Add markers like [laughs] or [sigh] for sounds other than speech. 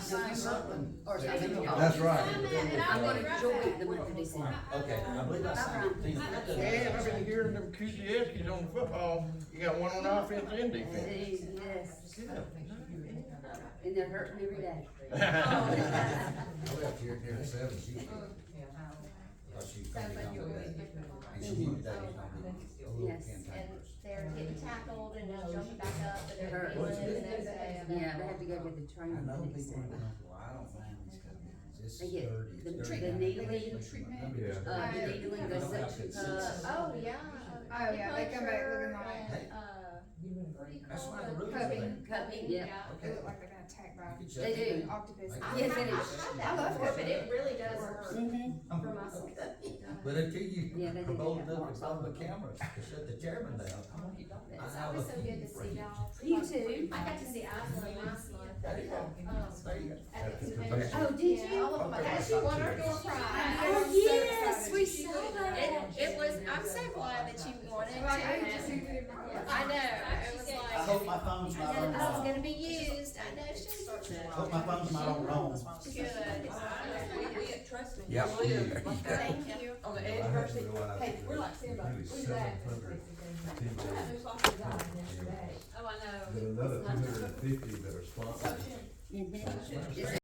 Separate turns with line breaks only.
sign something or
There you
something.
go.
That's right.
I
I'm
want
gonna join
to join
the
the
Memphis December.
Okay, I believe I signed Tina. that doesn't
Yeah, I've
[laughs]
been
sound-
hearing them Kuzieskis on football, you got one on offense and defense. [laughs]
Yes, yes.
and they're hurting every day.
I left here at near seven, she was. Thought she was coming down with that. And she was that, a little
Yes,
And
cantankerous.
they're getting tackled and just jumping back up and
Her-
they're feeling it the next day.
Yeah, they have um, to go get the
I
training
know
the next
people,
day.
are going, well, I don't mind these companies, this
They
is
get
dirty,
the-
it's
the
dirty.
needling
treatment.
Uh, the needling, the suction cup,
Oh, yeah.
Oh, yeah, they come back
Acupuncture
looking like-
and, uh, what do you
That's
call
why the
it?
rules are
Cupping.
there.
cupping, yeah.
They
Okay.
look like they're gonna attack by
You could
They
shut
do.
it
an
down.
octopus.
Like-
Yes, it is.
I've- I've
I
had
love
that before,
it.
but it really does
Works.
work
Mm-hmm.
for myself.
But until you
Yeah, they do
bolt
that
up
once.
and on the camera, to shut the chairman down, I mean, I
It's
have
always
a
so good to see
friend.
y'all.
You too.
I got to see Aslan last month.
There you
Oh,
go.
Um,
There you go.
at the convention.
convention.
Oh, did
Yeah,
you?
all of them.
Okay.
And she won her door prize.
Oh,
I'm so
yes,
excited.
we
She
saw
won.
that.
It, it was, I'm so glad that you wanted to.
Like, I just need to do my work.
I know, it was
I
like,
hope my phone's
I
not on
know, it's
wrong.
gonna be used, I know she's
I hope my phone's not on wrong.
good.
We, we at Trusty.
Yeah. [laughs]
live like that,
Thank you.
on the
I
edge of our
hadn't
city.
realized
Hey,
it
we're
was
like saying about,
nearly
we're back.
700 people.
There's lots of guys in there today.
Oh, I know.
There are another two hundred and fifty that are sponsored.
Mhm.
Oh,
That's what I'm
It's